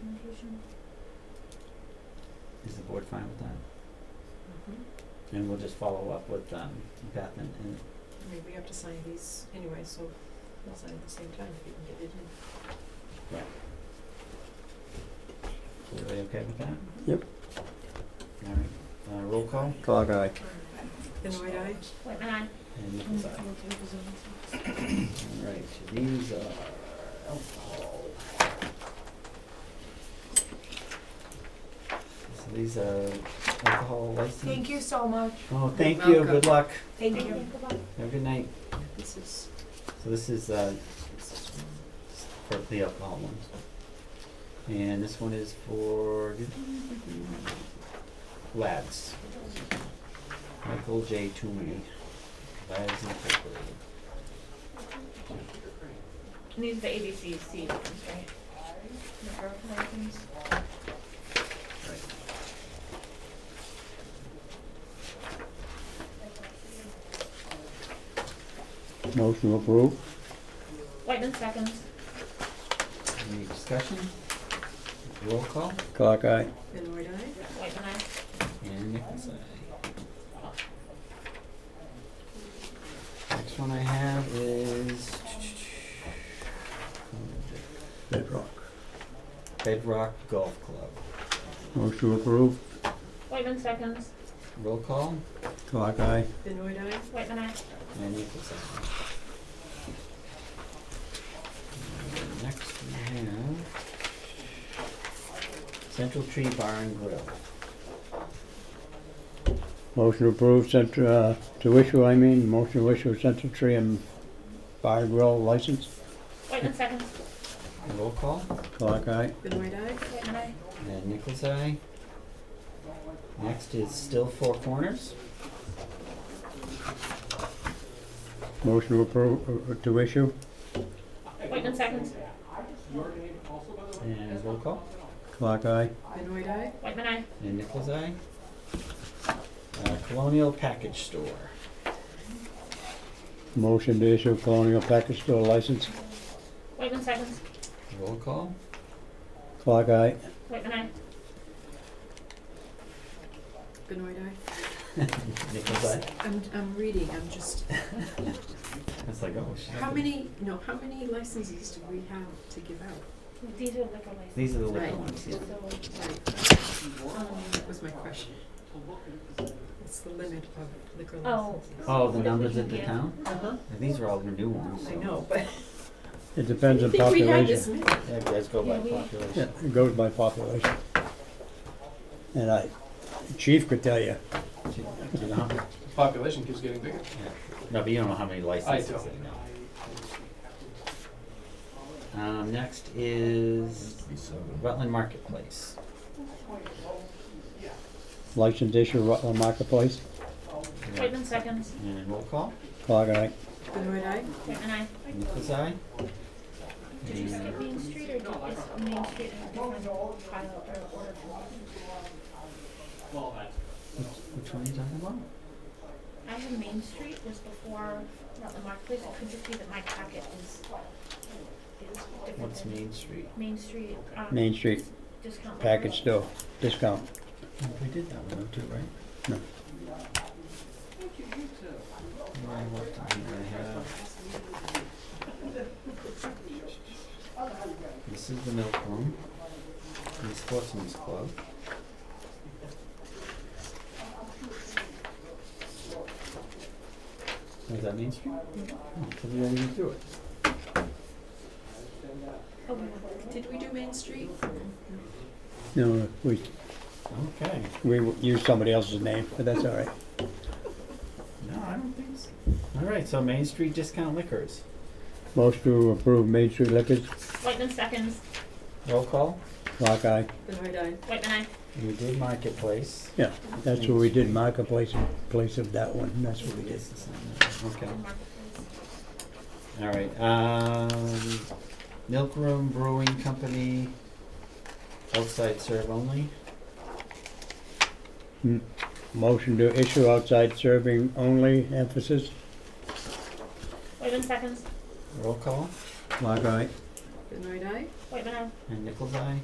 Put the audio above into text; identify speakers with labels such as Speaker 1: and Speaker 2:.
Speaker 1: resolution?
Speaker 2: Is the board fine with that?
Speaker 1: Mm-hmm.
Speaker 2: And we'll just follow up with, um, Beth and, and
Speaker 1: I mean, we have to sign these anyway, so we'll sign at the same time if you can get it in.
Speaker 2: everybody okay with that?
Speaker 3: Yep.
Speaker 2: All right, uh, roll call,
Speaker 3: Clock eye.
Speaker 1: Then wait, I,
Speaker 4: Whitman, aye.
Speaker 2: and Nichols eye. All right, these are alcohol. So these are alcohol license.
Speaker 5: Thank you so much.
Speaker 2: Oh, thank you, good
Speaker 5: welcome.
Speaker 2: luck,
Speaker 5: Thank you.
Speaker 2: have a good night.
Speaker 1: this is,
Speaker 2: So this is, uh,
Speaker 1: this is one.
Speaker 2: for the alcohol one. And this one is for Lads. Michael J. Toomey, Lads Incorporated.
Speaker 4: And these are the ABCC ones, right? The broken license.
Speaker 3: Motion approved.
Speaker 4: Whitman seconds.
Speaker 2: Any discussion? Roll call?
Speaker 3: Clock eye.
Speaker 1: Then wait, I,
Speaker 4: Whitman, aye.
Speaker 2: And Nichols, aye. Next one I have is
Speaker 3: Bedrock.
Speaker 2: Bedrock Golf Club.
Speaker 3: Motion approved.
Speaker 4: Whitman seconds.
Speaker 2: Roll call?
Speaker 3: Clock eye.
Speaker 1: then wait, I,
Speaker 4: Whitman, aye.
Speaker 2: And Nichols, aye. And Next we have Central Tree Bar and Grill.
Speaker 3: Motion approved, sent, uh, to issue, I mean, motion to issue Central Tree and Fire Grill license.
Speaker 4: Whitman seconds.
Speaker 2: Roll call?
Speaker 3: Clock eye.
Speaker 1: then wait, I,
Speaker 4: Whitman, aye.
Speaker 2: And Nichols, aye. Next is Still Four Corners.
Speaker 3: Motion approved, to issue.
Speaker 4: Whitman seconds.
Speaker 2: And roll call?
Speaker 3: Clock eye.
Speaker 1: then wait, I,
Speaker 4: Whitman, aye.
Speaker 2: And Nichols Eye. Uh, Colonial Package Store.
Speaker 3: Motion to issue Colonial Package Store license.
Speaker 4: Whitman seconds.
Speaker 2: Roll call.
Speaker 3: Clock eye.
Speaker 4: Whitman, aye.
Speaker 1: then wait, I,
Speaker 2: Nichols Eye.
Speaker 1: I'm, I'm reading, I'm just,
Speaker 2: That's like, oh shit.
Speaker 1: how many, no, how many licenses do we have to give out?
Speaker 4: These are liquor licenses.
Speaker 2: These are the
Speaker 1: Right.
Speaker 2: little ones, yeah.
Speaker 4: So, um,
Speaker 1: That was my question. What's the limit of liquor
Speaker 4: Oh.
Speaker 1: licenses?
Speaker 2: Oh, the numbers at the
Speaker 4: Yeah.
Speaker 2: town?
Speaker 1: Uh-huh,
Speaker 2: These are all the new ones,
Speaker 1: I
Speaker 2: so-
Speaker 1: know, but
Speaker 3: It depends
Speaker 1: I
Speaker 3: on
Speaker 1: think we had
Speaker 3: population.
Speaker 1: this many.
Speaker 2: Yeah, it does go by
Speaker 4: Yeah, we-
Speaker 3: Yeah,
Speaker 2: population.
Speaker 3: it goes by population. And I, chief could tell you,
Speaker 2: Do you- do you know how-
Speaker 6: Population keeps getting bigger.
Speaker 2: No, but you don't know how many licenses
Speaker 6: don't.
Speaker 2: they know. Um, next is Rutland Marketplace.
Speaker 3: license issue, Rutland Marketplace,
Speaker 4: Whitman seconds.
Speaker 2: And roll call.
Speaker 3: clock eye,
Speaker 1: Then wait, I,
Speaker 4: Whitman, aye.
Speaker 2: Nichols Eye.
Speaker 4: Did you skip Main Street or did is Main Street have a different file or order?
Speaker 2: Which one are you talking about?
Speaker 4: I have Main Street was before Rutland Marketplace. Could you see that my packet is, is different
Speaker 2: What's
Speaker 4: than
Speaker 2: Main Street?
Speaker 4: Main Street, um,
Speaker 3: Main Street,
Speaker 4: discount liquor?
Speaker 3: package store, discount.
Speaker 2: We did that one too, right?
Speaker 3: No.
Speaker 2: Where I worked on here, I have. This is the milk room, and the sportsman's club. Is that Main Street? Oh, so we didn't even do it.
Speaker 4: Oh, we were-
Speaker 1: did we do Main Street?
Speaker 3: No, we,
Speaker 2: Okay.
Speaker 3: we used somebody else's name, but that's all right.
Speaker 2: No, I don't think so. All right, so Main Street Discount Liquors.
Speaker 3: Motion to approve Main Street Liquors,
Speaker 4: Whitman seconds.
Speaker 2: Roll call.
Speaker 3: clock eye,
Speaker 1: Then wait, I,
Speaker 4: Whitman, aye.
Speaker 2: We did Marketplace.
Speaker 3: yeah, that's what we did, Marketplace, in place of that one, that's what we did.
Speaker 2: Okay.
Speaker 4: Rutland Marketplace.
Speaker 2: All right. Um, Milk Room Brewing Company, outside serve only.
Speaker 3: M- Motion to issue outside serving only, emphasis,
Speaker 4: Whitman seconds.
Speaker 2: Roll call.
Speaker 3: clock eye,
Speaker 1: then wait, I,
Speaker 4: Whitman, aye.
Speaker 2: And Nichols Eye.